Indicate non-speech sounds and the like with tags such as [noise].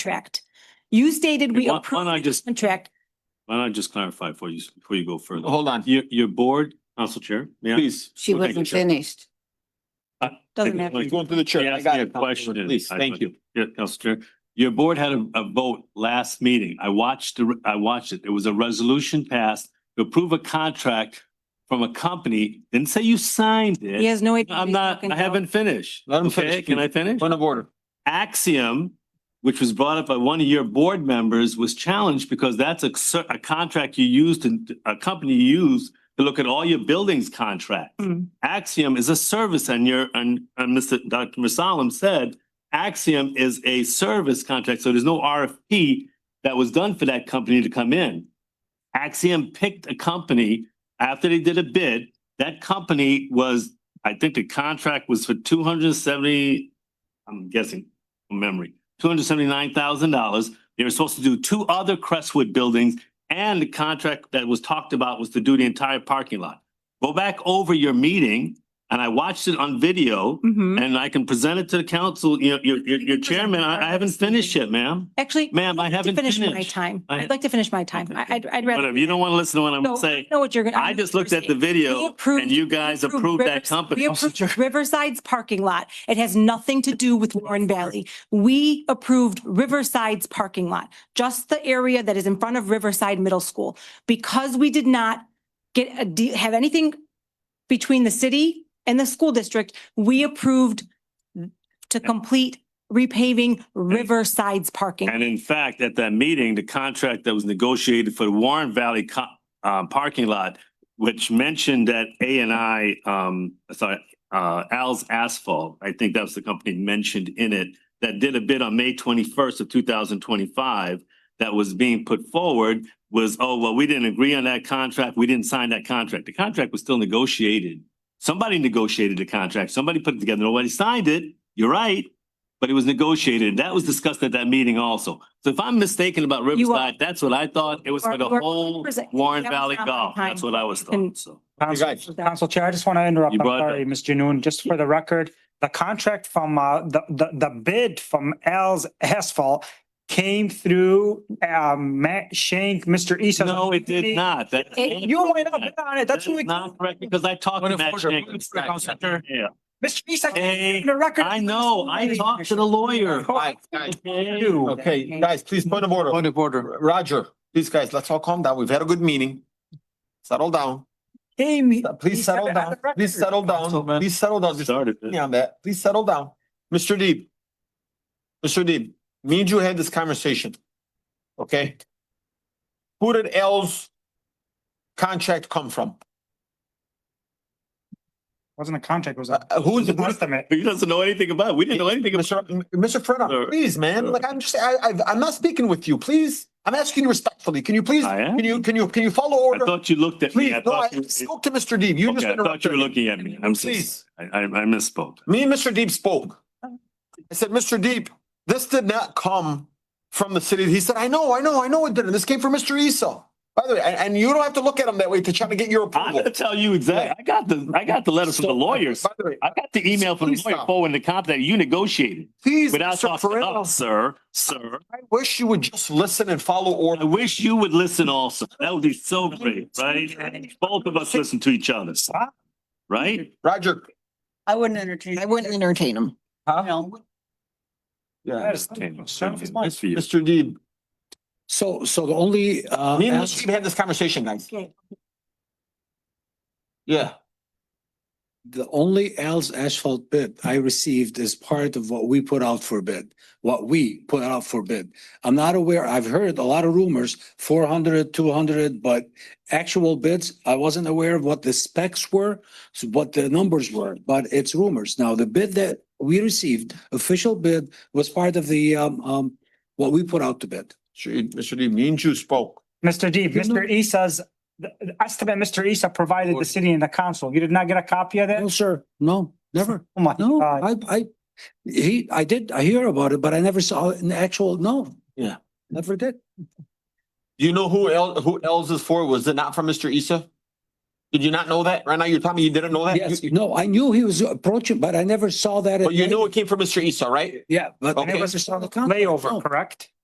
contract. You stated we Why- why don't I approved the just- contract. Why don't I just clarify for you, before you go further? Hold on, Your, your board, Council Chair, may I? please. She Well, thank wasn't you, Chair. finished. Doesn't matter. Like, You're going through the church. They I asked got me a it, Councilman. question. Please, I- thank you. Yeah, Council Chair, your board had a, a vote last meeting. I watched, the re- I watched it. It was a resolution passed to approve a contract from a company. Didn't say you signed He it. has no idea. what I'm he's not, talking I about. haven't finished. Let him Okay, finish, Can please. I finish? Point of order. Axiom, which was brought up by one of your board members, was challenged because that's a, cer- a contract you used and a company you use to look at all your buildings contracts. Mm. Axiom is a service and your, and, and Mr. Dr. Masalim said, Axiom is a service contract, so there's no RFP that was done for that company to come in. Axiom picked a company after they did a bid. That company was, I think the contract was for two hundred and seventy, I'm guessing from memory, two hundred seventy-nine thousand dollars. They were supposed to do two other Crestwood buildings and the contract that was talked about was to do the entire parking lot. Go back over your meeting and I watched it on video Mhm. and I can present it to the council, your, your, your your chairman. I, I haven't finished yet, ma'am. Actually. Ma'am, I I'd like to haven't Finish my finished. time. I- I'd like to finish my time. I- I'd, I'd rather. Whatever, you don't want to listen to what I'm So, saying. Know what you're gonna. I just looked at the We video approved- and you guys we approved approved that Rivers- company. [laughs] We approved Riverside's parking lot. It has nothing to do with Warren Valley. We approved Riverside's parking lot, just the area that is in front of Riverside Middle School. Because we did not get a, de- have anything between the city and the school district, we approved to complete repaving Riverside's parking. lot. And in fact, at that meeting, the contract that was negotiated for the Warren Valley co- um, parking lot, which mentioned that A and I, um, sorry, uh, Al's Asphalt, I think that was the company mentioned in it, that did a bid on May twenty-first of two thousand twenty-five that was being put forward was, oh, well, we didn't agree on that contract. We didn't sign that contract. The contract was still negotiated. Somebody negotiated the contract. Somebody put it together. Nobody signed it. You're right but it was negotiated. That was discussed at that meeting also. So if I'm mistaken about are. Riverside, that's what I thought. It was for the You are- whole Represent- Warren That was Valley not my Golf. time. That's what I was And- thought, so. Council, guys. Council Chair, I just want to interrupt. You I'm brought sorry, that. Ms. Janoon, just for the record, the contract from, uh, the, the, the bid from Al's Asphalt came through, um, Matt Shank, Mr. Issa. No, it did not. That. It- You might not be on it. That's That's what we, not correct because I talked Point to of Matt order, Jenkins. please, Council Chair. Yeah, Mr. Issa. Hey, the record. I know. I talked to the lawyer. Guys, guys, Okay. You. Okay, guys, please, point of order. Point of order. R- Roger, please, guys, let's all calm down. We've had a good meeting. Settle down. Amy. Please settle down. Please settle down. Councilman. Please settle down. Just Started put it. me on that. Please settle down. Mr. Deep. Mr. Deep, me and you had this conversation. Okay? Who did L's contract come from? Wasn't a contract, it was Uh, a, uh, Who's, it was an who's estimate. He doesn't know anything about it. We didn't know anything about Mr. M- Mr. Fredon, Sir. please, man, like, I'm just, I, I, I'm not speaking with you, please. I'm asking you respectfully. Can you please, I am. can you, can you, can you follow I order? thought you looked at me. Please, I no, I thought, you- spoke to Mr. Deep. You just okay, I thought you were interrupted. me. looking at me. I'm, so- Please. I, I I misspoke. Me and Mr. Deep spoke. I said, Mr. Deep, this did not come from the city. He said, I know, I know, I know it didn't. This came from Mr. Esau. By the way, and, and you don't have to look at him that way to try to get your I'm approval. gonna tell you exactly. I got the, I got the letter from the lawyers. By the way, I got the email from the Please lawyer stop. forwarding the comp that you negotiated please, without Mr. talking to Ferrell, us, sir, sir. I wish you would just listen and follow I order. wish you would listen also. That would be so great, right? Both of us listen to each other, right? Roger. I wouldn't entertain. I wouldn't entertain him. Yeah. Yes. That's for you. Mr. Deep, So, so the only, uh, me and as- Mr. Deep had this conversation, guys. Okay. Yeah. the only Al's asphalt bid I received is part of what we put out for bid, what we put out for bid. I'm not aware, I've heard a lot of rumors, 400, 200, but actual bids, I wasn't aware of what the specs were, so what the numbers were, but it's rumors. Now, the bid that we received, official bid, was part of the, um, um, what we put out to bid. Mr. Deep, me and you spoke. Mr. Deep, Mr. Issa's, the the estimate Mr. Issa provided the city and the council. You did not get a copy of that? No, sir, no, never. Oh my No, God. Uh, I, I, he, I did, I hear about it, but I never saw an actual, no. Yeah. Never did. Do you know who L, who L's is for? Was it not from Mr. Issa? Did you not know that? Right now, you're telling me you didn't know that? Yes, You- no, I knew he was approaching, but I never saw that. at But you night. knew it came from Mr. Esau, right? Yeah, but I Okay. never saw the contract. no. layover, correct?